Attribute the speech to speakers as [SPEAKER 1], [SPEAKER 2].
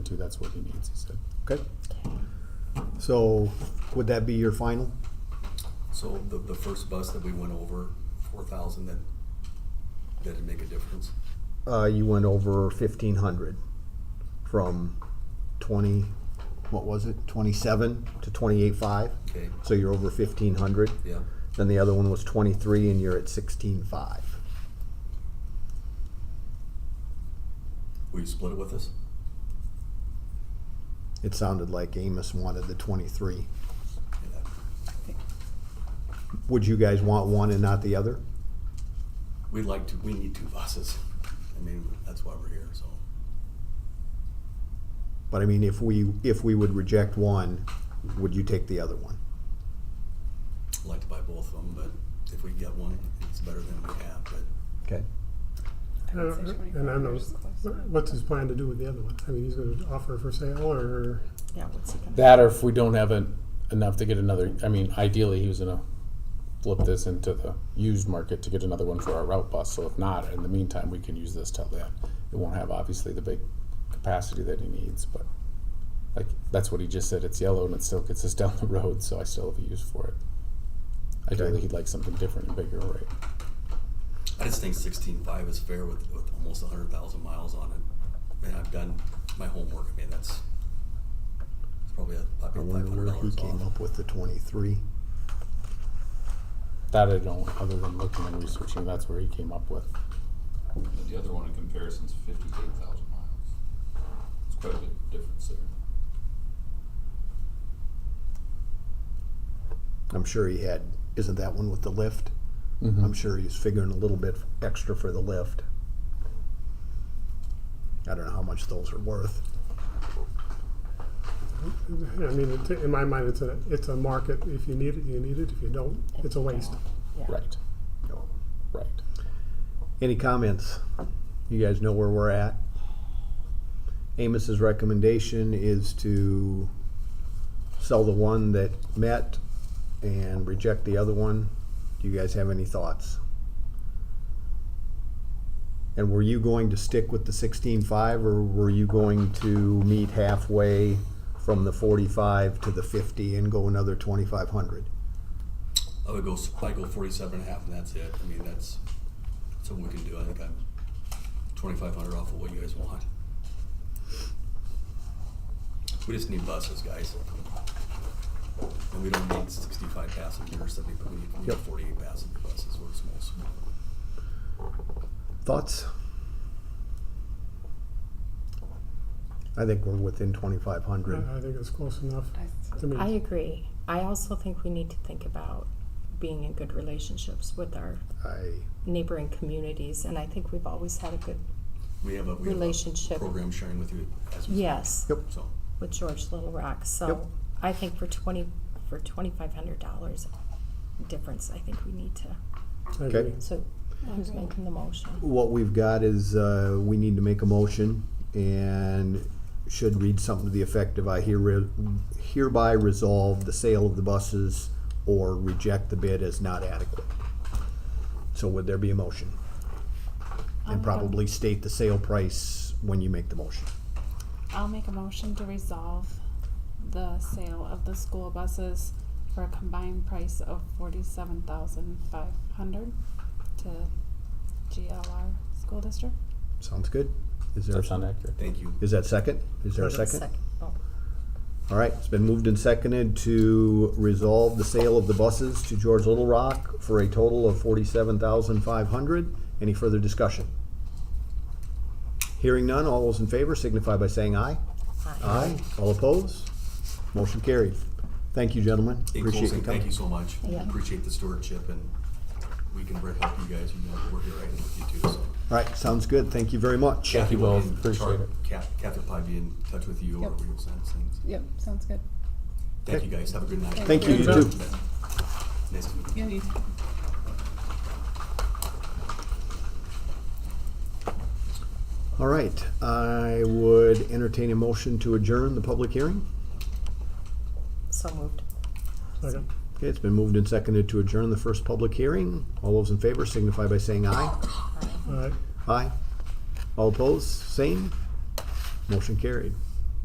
[SPEAKER 1] to, that's what he needs, he said.
[SPEAKER 2] Okay. So would that be your final?
[SPEAKER 3] So the, the first bus that we went over, four thousand, that, that didn't make a difference?
[SPEAKER 2] Uh, you went over fifteen hundred from twenty, what was it, twenty-seven to twenty-eight five?
[SPEAKER 3] Okay,
[SPEAKER 2] So you're over fifteen hundred.
[SPEAKER 3] yeah,
[SPEAKER 2] Then the other one was twenty-three and you're at sixteen five.
[SPEAKER 3] will you split it with us?
[SPEAKER 2] It sounded like Amos wanted the twenty-three.
[SPEAKER 3] Yeah.
[SPEAKER 2] Would you guys want one and not the other?
[SPEAKER 3] We'd like to, we need two buses. I mean, that's why we're here, so.
[SPEAKER 2] But I mean, if we, if we would reject one, would you take the other one?
[SPEAKER 3] I'd like to buy both of them, but if we get one, it's better than we have, but
[SPEAKER 2] Okay.
[SPEAKER 4] I would say
[SPEAKER 5] Uh-huh. And I
[SPEAKER 4] 25
[SPEAKER 5] know,
[SPEAKER 4] is close.
[SPEAKER 5] what's his plan to do with the other one? I mean, he's gonna offer for sale or,
[SPEAKER 4] Yeah, what's he gonna?
[SPEAKER 1] That or if we don't have en- enough to get another, I mean, ideally, he was gonna flip this into the used market to get another one for our route bus, so if not, in the meantime, we can use this till then. It won't have obviously the big capacity that he needs, but like, that's what he just said, it's yellow and it still gets us down the road, so I still have a use for it. Ideally, he'd like something different and bigger, right?
[SPEAKER 3] I just think sixteen-five is fair with, with almost a hundred thousand miles on it. And I've done my homework, I mean, that's, it's probably a,
[SPEAKER 2] I
[SPEAKER 3] probably
[SPEAKER 2] wonder
[SPEAKER 3] five hundred
[SPEAKER 2] where he
[SPEAKER 3] dollars
[SPEAKER 2] came
[SPEAKER 3] off.
[SPEAKER 2] up with the twenty-three.
[SPEAKER 1] That I don't, other than looking and researching, that's where he came up with.
[SPEAKER 6] But the other one in comparison's fifty-eight thousand miles. It's quite a bit difference there.
[SPEAKER 2] I'm sure he had, isn't that one with the lift?
[SPEAKER 1] Mm-hmm.
[SPEAKER 2] I'm sure he's figuring a little bit extra for the lift. I don't know how much those are worth.
[SPEAKER 5] I mean, it- in my mind, it's a, it's a market. If you need it, you need it. If you don't, it's a waste.
[SPEAKER 4] Yeah.
[SPEAKER 1] Right, right.
[SPEAKER 2] Any comments? You guys know where we're at. Amos's recommendation is to sell the one that met and reject the other one. Do you guys have any thoughts? And were you going to stick with the sixteen five or were you going to meet halfway from the forty-five to the fifty and go another twenty-five hundred?
[SPEAKER 3] I would go, s- I go forty-seven and a half and that's it. I mean, that's something we can do. I think I'm twenty-five hundred off of what you guys want. We just need buses, guys. And we don't need sixty-five passenger or seventy, but we need, we need
[SPEAKER 2] Yep.
[SPEAKER 3] forty-eight passenger buses. We're small, small.
[SPEAKER 2] Thoughts? I think we're within twenty-five hundred.
[SPEAKER 5] I I think it's close enough to
[SPEAKER 4] I
[SPEAKER 5] me.
[SPEAKER 4] agree. I also think we need to think about being in good relationships with our
[SPEAKER 2] I,
[SPEAKER 4] neighboring communities, and I think we've always had a good,
[SPEAKER 3] We have a, we have a
[SPEAKER 4] Relationship.
[SPEAKER 3] program sharing with you as we.
[SPEAKER 4] yes,
[SPEAKER 2] Yep.
[SPEAKER 3] So,
[SPEAKER 4] with George Little Rock,
[SPEAKER 2] Yep.
[SPEAKER 4] so I think for twenty, for twenty-five hundred dollars difference, I think we need to,
[SPEAKER 5] I
[SPEAKER 2] Okay.
[SPEAKER 5] agree.
[SPEAKER 4] so who's making the motion?
[SPEAKER 2] what we've got is, uh, we need to make a motion and should read something to the effect of, I here- hereby resolve the sale of the buses or reject the bid as not adequate. So would there be a motion? And probably state the sale price when you make the motion.
[SPEAKER 7] I'll make a motion to resolve the sale of the school buses for a combined price of forty-seven thousand five hundred to GLR School District.
[SPEAKER 2] Sounds good? Is there,
[SPEAKER 1] Does that sound accurate?
[SPEAKER 3] thank you.
[SPEAKER 2] is that second? Is there a second?
[SPEAKER 4] Second. Oh,
[SPEAKER 2] All right, it's been moved and seconded to resolve the sale of the buses to George Little Rock for a total of forty-seven thousand five hundred. Any further discussion? Hearing none, all those in favor signify by saying aye.
[SPEAKER 4] aye.
[SPEAKER 2] Aye. All opposed? Motion carried. Thank you, gentlemen.
[SPEAKER 3] In
[SPEAKER 2] Appreciate you
[SPEAKER 3] closing, thank
[SPEAKER 2] coming.
[SPEAKER 3] you so much.
[SPEAKER 4] Yeah.
[SPEAKER 3] Appreciate the stewardship and we can help you guys. You know, we're here right now with you too, so.
[SPEAKER 2] All right, sounds good. Thank you very much.
[SPEAKER 3] Kathy
[SPEAKER 1] you
[SPEAKER 3] will
[SPEAKER 1] both.
[SPEAKER 3] be in-
[SPEAKER 1] Appreciate
[SPEAKER 3] sorry,
[SPEAKER 1] it.
[SPEAKER 3] Kath- Kathy will probably be in touch with you or
[SPEAKER 7] Yep.
[SPEAKER 3] we will send things.
[SPEAKER 7] Yep, sounds good.
[SPEAKER 3] Thank you guys. Have a good night.
[SPEAKER 2] Thank you, you too.
[SPEAKER 3] Nice to meet you.
[SPEAKER 2] All right, I would entertain a motion to adjourn the public hearing.
[SPEAKER 4] So moved.
[SPEAKER 5] Second.
[SPEAKER 2] Okay, it's been moved and seconded to adjourn the first public hearing. All those in favor signify by saying aye.
[SPEAKER 5] All right.
[SPEAKER 2] Aye. All opposed, same. Motion carried.